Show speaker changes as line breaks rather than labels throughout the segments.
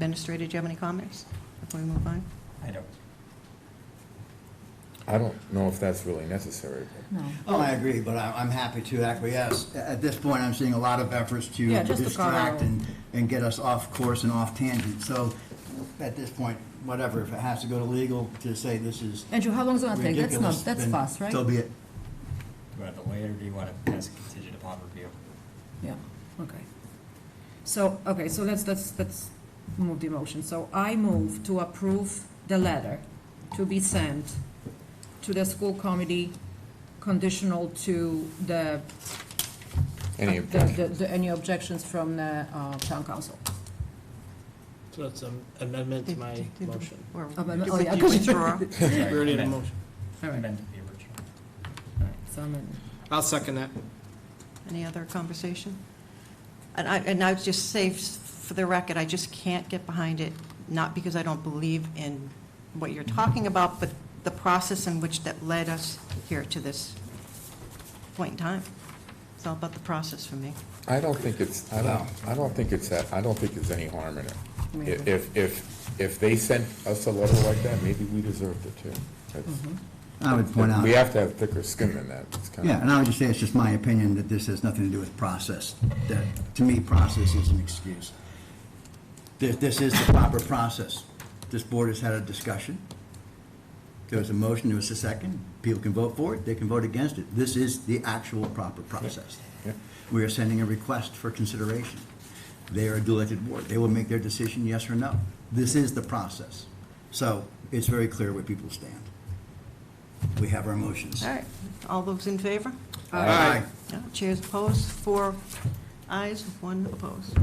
Administrator, do you have any comments before we move on?
I don't.
I don't know if that's really necessary. but-
No.
Oh, I agree, but I- I'm happy to acquiesce. A- At this point, I'm seeing a lot of efforts to
Yeah, just to
distract
cover-
and, and get us off course and off tangent. So at this point, whatever, if it has to go to legal to say this is
Andrew, how long's it gonna take? That's not,
ridiculous,
that's
then
fast, right?
So be it.
Do you want it delayed, or do you want it as contingent upon review?
Yeah, okay. So, okay, so let's, let's, let's move the motion. So I move to approve the letter to be sent to the school committee conditional to the.
Any
the-
objection?
the- the- Any objections from the uh, town council?
So that's an amendment to my
Did- did-
motion.
Or
Amendment-
did
oh,
we
yeah,
do
'cause-
withdraw?
All
We already had a motion.
right,
Amend the original.
so amendment.
I'll second that.
Any other conversation? And I, and I would just say, s- for the record, I just can't get behind it, not because I don't believe in what you're talking about, but the process in which that led us here to this point in time. It's all about the process for me.
I don't think it's, I don't, I don't think it's, that- I don't think there's any harm in it.
Me
I-
agree.
If, if, if they sent us a letter like that, maybe we deserved it too. That's-
Mm-hmm.
I would point out,
We
yeah,
have to have thicker skin than that. It's kind
and
of,
I would just say it's just my opinion that this has nothing to do with process. That, to me, process is an excuse. This, this is the proper process. This board has had a discussion. There was a motion, there was a second. People can vote for it, they can vote against it. This is the actual proper process.
Yeah.
We are sending a request for consideration. They are a duly elected board. They will make their decision, yes or no. This is the process. So it's very clear where people stand. We have our motions.
All right, all those in favor?
Aye.
No, Chairs opposed, four ayes, one opposed.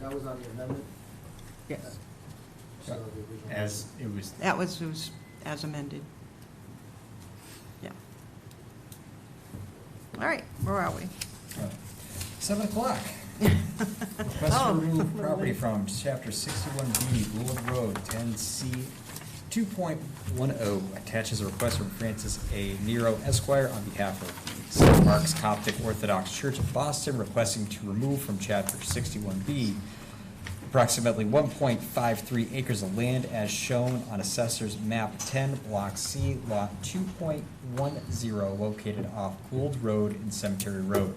That was on the amendment,
Yes.
so the original.
As it was,
That was, it was as amended. Yeah. All right, where are we?
uh, seven o'clock. Request
Oh.
to remove property from chapter sixty-one B, Gould Road, ten C, two point one oh, attaches a request from Francis A. Nero Esquire on behalf of the St. Mark's Coptic Orthodox Church of Boston, requesting to remove from chapter sixty-one B approximately 1.53 acres of land as shown on Assessor's Map 10, Block C, Lot 2.10, located off Gould Road and Cemetery Road.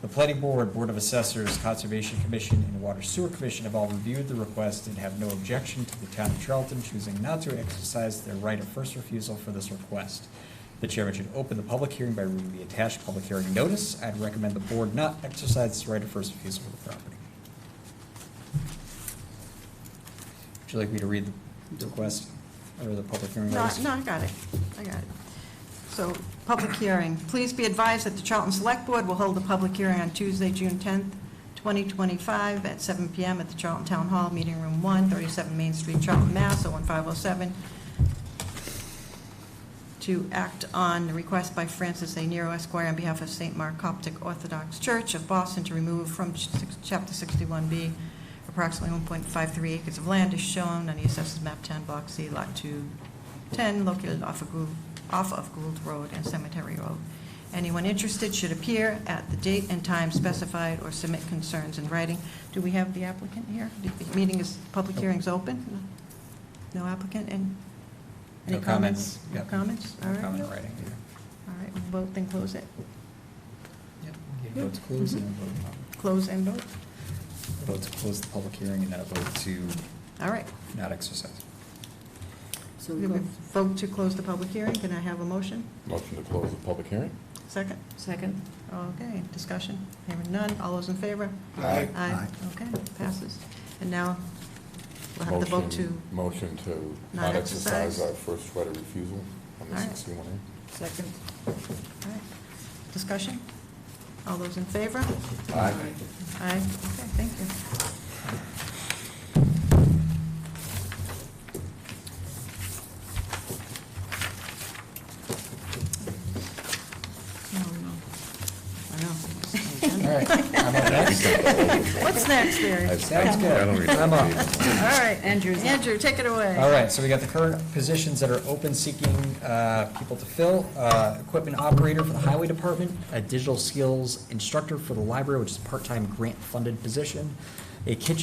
The Planning Board, Board of Assessors, Conservation Commission, and Water Sewer Commission have all reviewed the request and have no objection to the town of Charlton choosing not to exercise their right of first refusal for this request. The chairman should open the public hearing by reading the attached public hearing notice. I'd recommend the board not exercise its right of first refusal for the property. Would you like me to read the request or the public hearing
No,
notice?
no, I got it, I got it. So, public hearing. Please be advised that the Charlton Select Board will hold a public hearing on Tuesday, June 10th, 2025, at 7 PM at the Charlton Town Hall, Meeting Room 1, 37 Main Street, Charlton, Mass. 01507, to act on the request by Francis A. Nero Esquire on behalf of St. Mark Coptic Orthodox Church of Boston to remove from ch- six- Chapter 61B approximately 1.53 acres of land is shown on the assessors map 10, block C, lot 210, located off of Gould, off of Gould Road and Cemetery Road. Anyone interested should appear at the date and time specified or submit concerns in writing. Do we have the applicant here? The Meeting is, public hearing's open? No applicant, and?
No
any
comments.
No
Yep.
comments? All
No
right.
Comment in writing.
All right, we'll vote, then close it.
Yeah. Vote to close and then vote not-
Close and vote?
vote to close the public hearing and then a vote to
All right.
not exercise.
So
We
we go,
Vote to close the public hearing. Can I have a motion?
motion to close the public hearing?
Second?
second?
Okay, discussion. Hearing none. All those in favor?
Aye.
Aye.
Aye.
Okay, passes. And now we'll have the vote to,
Motion- Motion to
Not
not
exercise.
exercise our first right of refusal on the
All right.
61A.
Second.
all right, discussion. All those in favor? Aye.
Aye.
Okay, thank you. I know.
All right, I'm up next.
What's next, Barry?
I- I-
Sounds good.
I don't read
I'm up.
the-
All right,
Andrew's up.
Andrew, take it away.
All right, so we got the current positions that are open seeking uh, people to fill. uh, Equipment operator for the highway department, a digital skills instructor for the library, which is a part-time grant-funded position, a kitchen